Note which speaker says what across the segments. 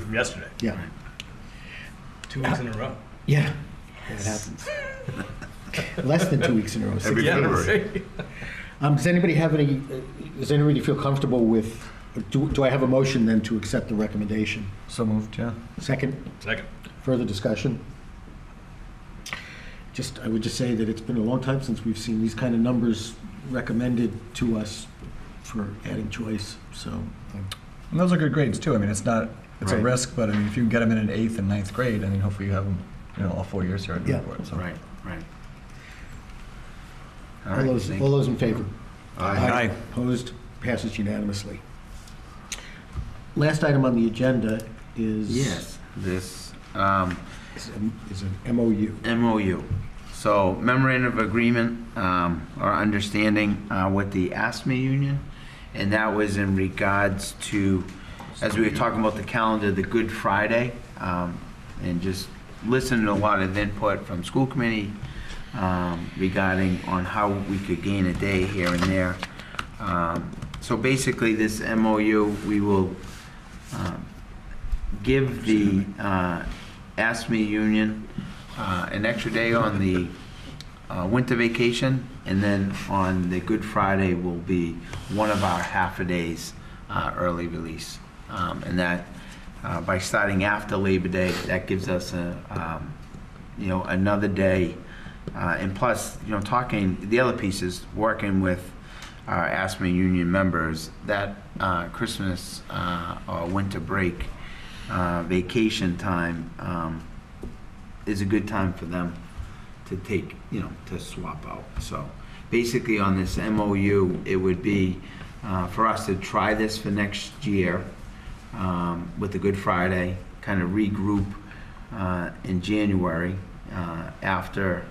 Speaker 1: from yesterday.
Speaker 2: Yeah,
Speaker 1: Two weeks in a row.
Speaker 2: yeah, that happens. Less than two weeks in a row. six
Speaker 3: Every
Speaker 1: Yeah,
Speaker 2: days.
Speaker 1: right.
Speaker 2: Um, does anybody have any, uh, does anybody feel comfortable with, do, do I have a motion then to accept the recommendation?
Speaker 4: So moved, yeah.
Speaker 2: Second,
Speaker 1: Second.
Speaker 2: further discussion? Just, I would just say that it's been a long time since we've seen these kind of numbers recommended to us for adding choice, so.
Speaker 4: And those are good grades too. I mean, it's not, it's a
Speaker 2: Right.
Speaker 4: risk, but I mean, if you can get them in an eighth and ninth grade, I mean, hopefully you have them, you know, all four years here at
Speaker 2: Yeah,
Speaker 4: Newport, so.
Speaker 3: Right, right. All
Speaker 2: All
Speaker 3: right,
Speaker 2: those,
Speaker 3: thank- Uh,
Speaker 2: all those in favor?
Speaker 3: Aye.
Speaker 4: Aye.
Speaker 2: Opposed? Passes unanimously. Last item on the agenda is.
Speaker 3: Yes, this, um,
Speaker 2: Is a- is an MOU.
Speaker 3: MOU. So memorandum of agreement um, or understanding uh, with the ASME union, and that was in regards to, as we were talking about the calendar, the Good Friday, um, and just listening to a lot of input from school committee um, regarding on how we could gain a day here and there. Um, So basically, this MOU, we will um, give the uh, ASME union uh, an extra day on the uh, winter vacation, and then on the Good Friday will be one of our half-a-days uh, early release. Um, And that, uh, by starting after Labor Day, that gives us, a, um, you know, another day. Uh, And plus, you know, talking, the other piece is working with our ASME union members, that uh, Christmas uh, or winter break uh, vacation time um, is a good time for them to take, you know, to swap out. So basically, on this MOU, it would be uh, for us to try this for next year um, with the Good Friday, kind of regroup uh, in January uh, after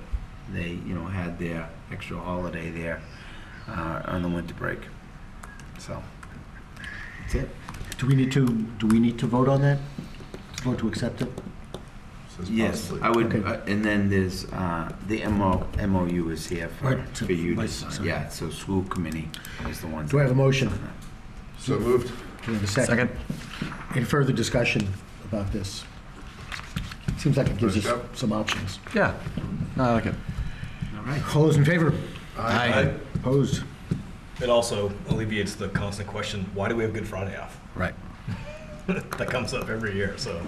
Speaker 3: they, you know, had their extra holiday there uh, on the winter break. So that's it.
Speaker 2: Do we need to, do we need to vote on that? To Vote to accept it?
Speaker 3: Yes, I would,
Speaker 2: Okay.
Speaker 3: uh, and then there's, uh, the MO, MOU is here for,
Speaker 2: Right, to-
Speaker 3: for you to
Speaker 2: right,
Speaker 3: sign.
Speaker 2: sorry.
Speaker 3: Yeah, so school committee is the one.
Speaker 2: Do I have a motion?
Speaker 5: So moved.
Speaker 2: Do I have a second?
Speaker 4: Second?
Speaker 2: Any further discussion about this? Seems like it gives
Speaker 5: First
Speaker 2: us
Speaker 5: up.
Speaker 2: some options.
Speaker 4: Yeah. No, I like it.
Speaker 3: All right.
Speaker 2: All those in favor?
Speaker 4: Aye.
Speaker 2: Opposed?
Speaker 1: It also alleviates the constant question, why do we have Good Friday off?
Speaker 4: Right.
Speaker 1: That comes up every year, so.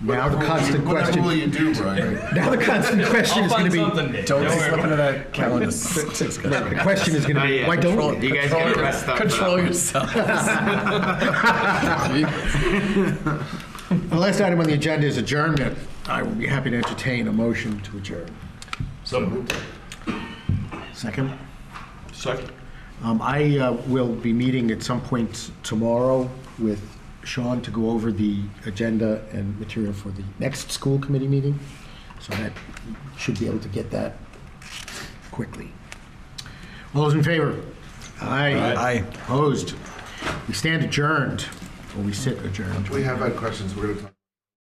Speaker 2: Now the constant
Speaker 5: Whatever will
Speaker 2: question,
Speaker 5: you do, Brian?
Speaker 2: now the constant question
Speaker 1: I'll
Speaker 2: is going
Speaker 1: find
Speaker 2: to be,
Speaker 1: something, Dave.
Speaker 4: Don't
Speaker 1: worry
Speaker 4: slip
Speaker 1: about
Speaker 4: into
Speaker 1: it.
Speaker 4: that calendar.
Speaker 2: the question is going to
Speaker 3: Not
Speaker 2: be,
Speaker 3: yet.
Speaker 2: why don't we?
Speaker 3: You guys gotta rest up. for that
Speaker 4: Control
Speaker 3: one.
Speaker 4: yourself.
Speaker 2: The last item on the agenda is adjournment. I would be happy to entertain a motion to adjourn.
Speaker 1: So moved.
Speaker 2: Second?
Speaker 1: Second.
Speaker 2: Um, I uh, will be meeting at some point tomorrow with Sean to go over the agenda and material for the next school committee meeting, so that should be able to get that quickly. All those in favor? Aye.
Speaker 4: Aye.
Speaker 2: Opposed? We stand adjourned, or we sit adjourned.
Speaker 5: We have had questions, we're gonna talk.